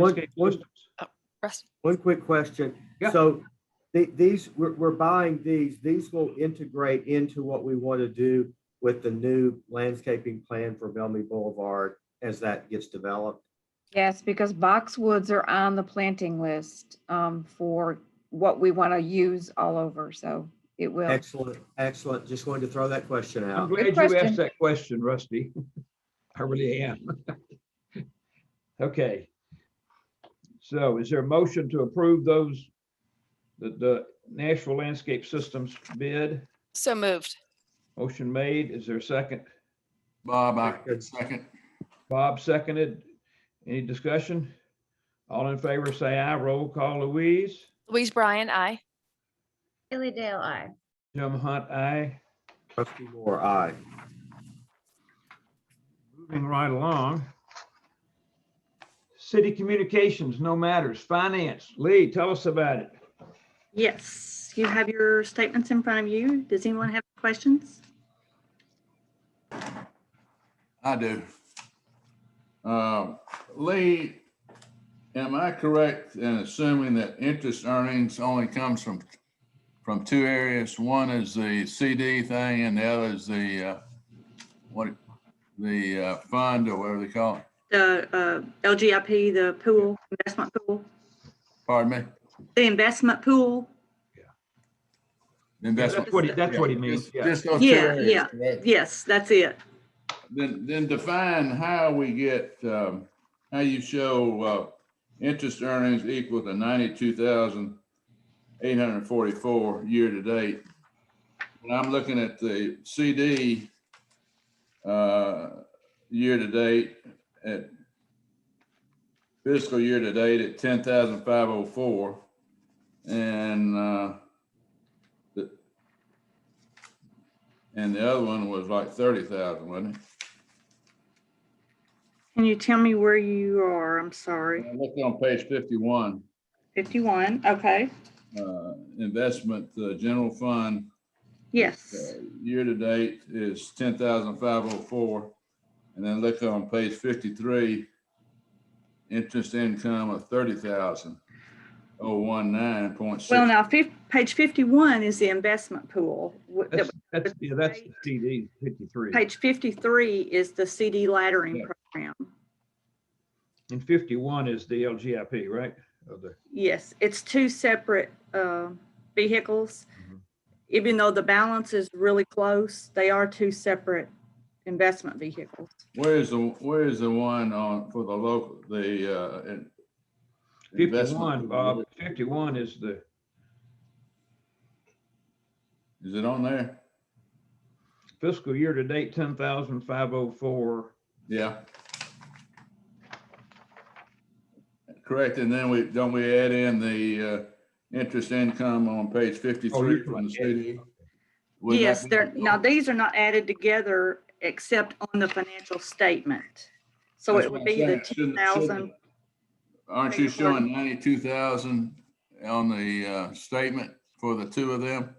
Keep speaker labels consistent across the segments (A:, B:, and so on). A: One-
B: Inscape
A: one-
B: Systems.
C: Russ,
A: One quick question.
B: Yeah.
A: So the- these, we're, we're buying these, these will integrate into what we want to do with the new landscaping plan for Bellamy Boulevard as that gets developed.
D: Yes, because boxwoods are on the planting list um, for what we want to use all over, so it will.
A: Excellent, excellent. Just wanted to throw that question
B: I'm
A: out.
B: glad you
D: question.
B: asked that question, Rusty. I really am. Okay. So is there a motion to approve those, the, the Nashville Landscape Systems bid?
C: so moved.
B: Motion made. Is there a second?
E: Bob, I
A: Good.
E: second.
B: Bob seconded. Any discussion? All in favor, say aye. Roll call Louise.
C: Louise Bryan, I.
F: Haley Dale, I.
B: Jim Hunt, aye.
A: Trustee Moore, aye.
B: Moving right along. City Communications, no matters. Finance, Lee, tell us about it.
G: Yes, you have your statements in front of you. Does anyone have questions?
E: I do. Um, Lee, am I correct in assuming that interest earnings only comes from, from two areas? One is the CD thing and the other is the, uh, what, the uh, fund or whatever they call it?
G: The uh, LGIP, the pool, investment pool,
E: Pardon me?
G: the investment pool.
E: Investment.
B: That's what he, that's what he means,
E: Just-
B: yeah.
E: Just those two
G: Yeah,
E: areas,
G: yeah.
E: correct?
G: Yes, that's it.
E: Then, then define how we get, um, how you show, uh, interest earnings equal to ninety-two thousand eight hundred and forty-four year to date. When I'm looking at the CD, uh, year to date at fiscal year to date at ten thousand five oh four. And, uh, the, and the other one was like thirty thousand, wasn't it?
G: Can you tell me where you are? I'm sorry.
E: I looked on page fifty-one,
G: 51, okay.
E: uh, investment, the general fund, uh,
G: Yes,
E: year-to-date is ten thousand five oh four. And then look on page fifty-three, interest income of thirty thousand oh one nine point six.
G: well, now, fif- page 51 is the investment pool. Wh-
B: That's,
G: the-
B: that's, yeah, that's TD fifty-three.
G: Page 53 is the CD laddering
B: Yeah.
G: program.
B: And fifty-one is the LGIP, right? Of the-
G: Yes, it's two separate uh, vehicles.
E: Mm-hmm.
B: Mhm.
G: Even though the balance is really close, they are two separate investment vehicles.
E: Where is the, where is the one on, for the local, the, uh? in-
B: Fifty-one,
E: investment?
B: Bob, fifty-one is the,
E: Is it on there?
B: fiscal year to date, ten thousand five oh four.
E: Yeah. Correct, and then we, don't we add in the uh, interest income on page fifty-three from the CD? Wouldn't that
G: Yes,
E: be-
G: they're, now these are not added together except on the financial statement. So
E: That's
G: it
E: what
G: would
E: I'm
G: be the
E: saying. Shouldn't-
G: 2,000.
E: shouldn't- Aren't you
G: Beg your pardon?
E: showing ninety-two thousand on the uh, statement for the two of them?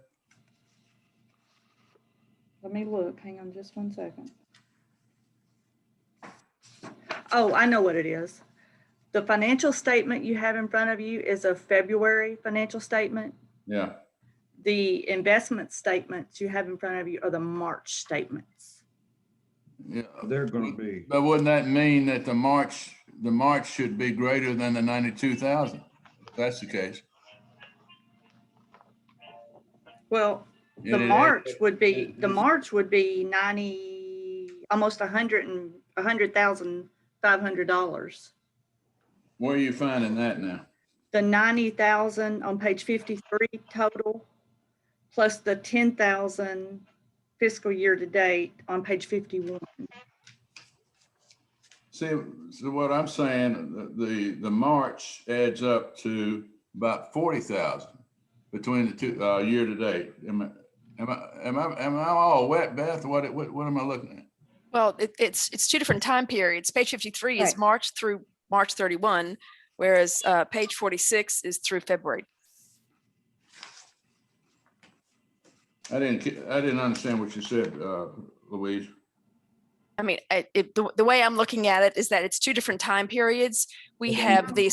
G: Let me look, hang on just one second. Oh, I know what it is. The financial statement you have in front of you is a February financial statement.
E: Yeah,
G: The investment statements you have in front of you are the March statements.
E: yeah.
B: They're gonna be,
E: But wouldn't that mean that the March, the March should be greater than the ninety-two thousand? If that's the case.
G: Well, the
E: And it ain't-
G: March would be,
E: it-
G: the March would be ninety, almost a hundred and, a hundred thousand, five hundred dollars.
E: Where are you finding that now?
G: The ninety thousand on page fifty-three total, plus the ten thousand fiscal year to date on page fifty-one.
E: See, so what I'm saying, the- the, the March adds up to about forty thousand between the two, uh, year to date. Am I, am I, am I, am I all wet, Beth? What, what, what am I looking at?
C: Well, it, it's, it's two different time periods. Page fifty-three is
D: Right.
C: March through March thirty-one, whereas, uh, page forty-six is through February.
E: I didn't, ca- I didn't understand what you said, uh, Louise.
C: I mean, I- it, the, the way I'm looking at it is that it's two different time periods. We
E: Okay.
C: have the